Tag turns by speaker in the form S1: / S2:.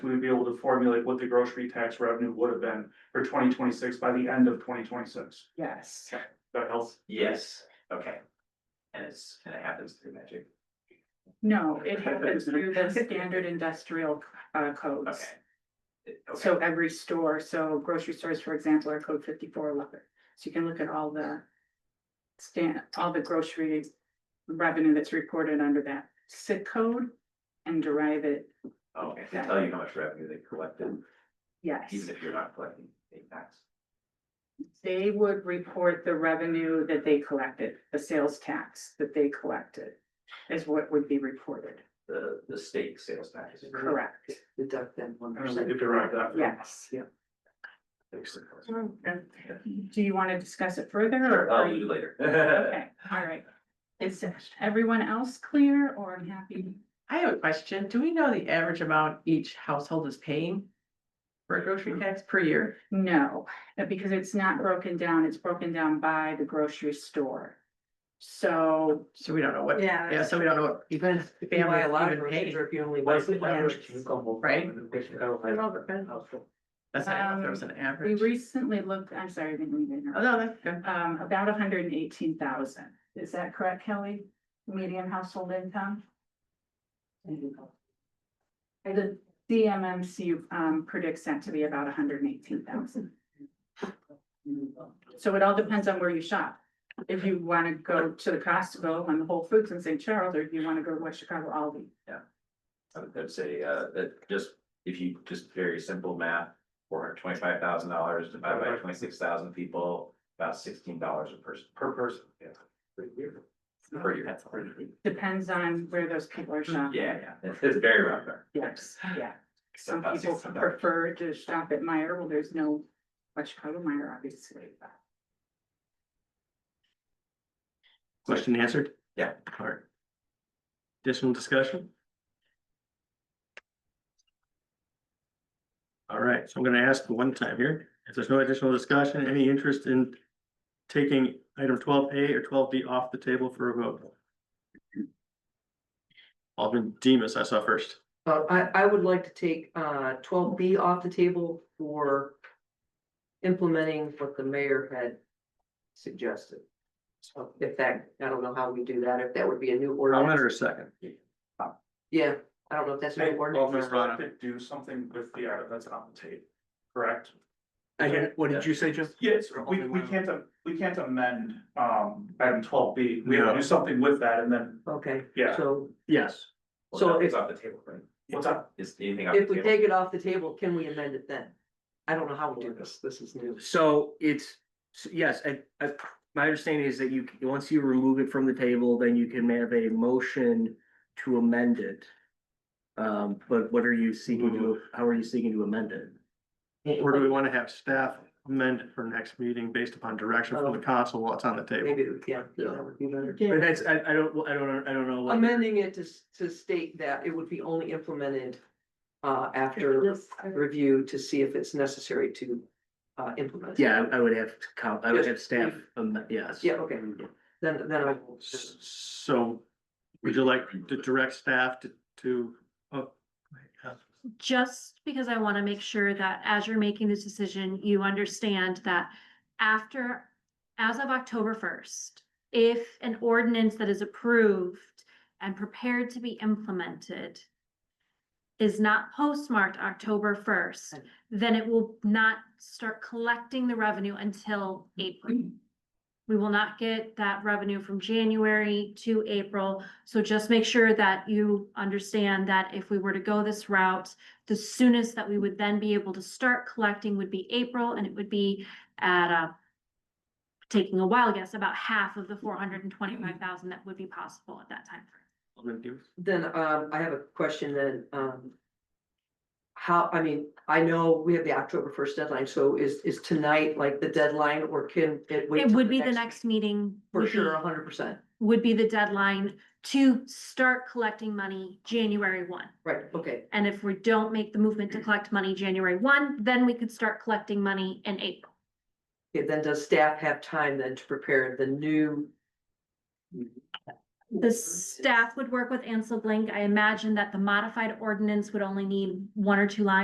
S1: we would be able to formulate what the grocery tax revenue would have been for twenty twenty-six by the end of twenty twenty-six.
S2: Yes.
S1: That helps.
S3: Yes, okay. And it's, and it happens through magic,
S2: No, it happens through the standard industrial uh
S3: okay.
S2: codes.
S3: It- okay.
S2: So every store, so grocery stores, for example, are code fifty-four eleven. So you can look at all the stand, all the grocery revenue that's reported under that SIC code and derive it,
S3: Okay, they tell you how much revenue they collected,
S2: yes.
S3: even if you're not collecting state tax.
S2: They would report the revenue that they collected, the sales tax that they collected is what would be reported,
S3: The, the state sales tax.
S2: correct?
S4: deduct that one
S1: And we
S4: percent.
S1: could derive that. from-
S2: Yes. Do you want to discuss it further or?
S3: Sure,
S2: are
S3: I'll do
S2: you-
S3: later.
S2: Okay, all right. Is everyone else clear or unhappy?
S5: I have a question. Do we know the average amount each household is paying? For a grocery
S4: Mm-hmm.
S5: tax per year?
S2: No, uh, because it's not broken down, it's broken down by the grocery store. So,
S5: So we don't know what,
S4: Yeah.
S5: yeah, so we don't know what even
S4: Even
S5: the
S4: if you buy a
S5: family
S4: lot of
S5: even
S4: groceries
S5: paid.
S4: or if you only buy
S3: What's the
S4: some
S3: average
S4: groceries, you go home
S5: Right?
S4: and wish you don't like household.
S5: That's not, I don't know if there was
S4: Um,
S5: an
S2: we
S5: average.
S2: recently looked, I'm sorry, I didn't mean to interrupt.
S5: Oh, no, that's good.
S2: um, about hundred and eighteen thousand. Is that correct, Kelly? Median household income? The DMMC, um, predicts that to be about hundred and eighteen thousand. So it all depends on where you shop. If you want to go to the Costco and the Whole Foods in St. Charles, or if you want to go to West Chicago Aldi.
S3: I would I'd say, uh, that just, if you just very simple math, four hundred twenty-five thousand dollars divided by twenty-six thousand people, about sixteen dollars a person.
S1: Per person, yeah.
S3: Per year.
S2: Depends on where those people are shopping.
S3: Yeah, yeah, it's, it's very rough there.
S2: Yes, yeah. Some
S3: About
S2: people
S3: $16.
S2: prefer to shop at Meyer, well, there's no West Chicago Meyer, obviously.
S6: Question answered?
S3: Yeah.
S6: All right. Additional discussion? All right, so I'm gonna ask one time here, if there's no additional discussion, any interest in taking item twelve A or twelve B off the table for a vote? Alderman Demas, I saw first.
S4: Uh, I, I would like to take, uh, twelve B off the table for implementing what the mayor had suggested. So if that, I don't know how we do that, if that would be a new
S6: I'll let
S4: ordinance.
S6: her a second.
S4: Yeah, I don't know if that's a new
S1: Alderman
S4: ordinance.
S1: Scott could do something with the item that's on the table, correct?
S3: Again,
S6: what
S3: did
S6: you say, Jeff?
S1: Yes, we, we can't, am- we can't amend, um, item twelve B, we have to
S6: No.
S1: do something with that and then,
S4: Okay,
S1: Yeah.
S4: so
S6: Yes.
S3: Well,
S4: So
S3: nothing's
S4: if-
S3: off the table, right?
S1: what's up?
S3: Is anything off the
S4: if we
S3: table?
S4: take it off the table, can we amend it then? I don't know how we do this, this is new.
S7: So it's, so yes, I, I, my understanding is that you, c- once you remove it from the table, then you can have a motion to amend it. Um, but what are you seeking to, how are you seeking to amend it?
S6: Or do we wanna have staff amend it for next meeting based upon direction from the council while it's on the table?
S4: Maybe, yeah, that would be better.
S7: Oh. But that's, I, I don't, I don't, I don't know. what-
S4: Amending it to, s- to state that it would be only implemented uh, after review to see if it's necessary to uh, implement.
S7: Yeah, I I would have, to count- I would
S4: Yes,
S7: have staff, um, yes.
S4: Yeah, okay, then, then I will.
S6: S- So would you like to direct staff to, to, oh.
S8: just because I want to make sure that as you're making this decision, you understand that after, as of October first, if an ordinance that is approved and prepared to be implemented is not postmarked October first, then it will not start collecting the revenue until April. We will not get that revenue from January to April. So just make sure that you understand that if we were to go this route, the soonest that we would then be able to start collecting would be April, and it would be at a taking a wild guess, about half of the four hundred and twenty-five thousand that would be possible at that time.
S6: Alderman Demas?
S4: Then um, I have a question then. um, How, I mean, I know we have the October first deadline, so is, is tonight like the deadline or can it wait?
S8: It
S4: till
S8: would be the next meeting.
S4: For
S8: would
S4: sure,
S8: be-
S4: hundred percent,
S8: Would be the deadline to start collecting money January one.
S4: right, okay.
S8: And if we don't make the movement to collect money January one, then we could start collecting money in April.
S4: Okay, then does staff have time then to prepare the new
S8: The staff would work with Ansel Blank. I imagine that the modified ordinance would only need one or two lines.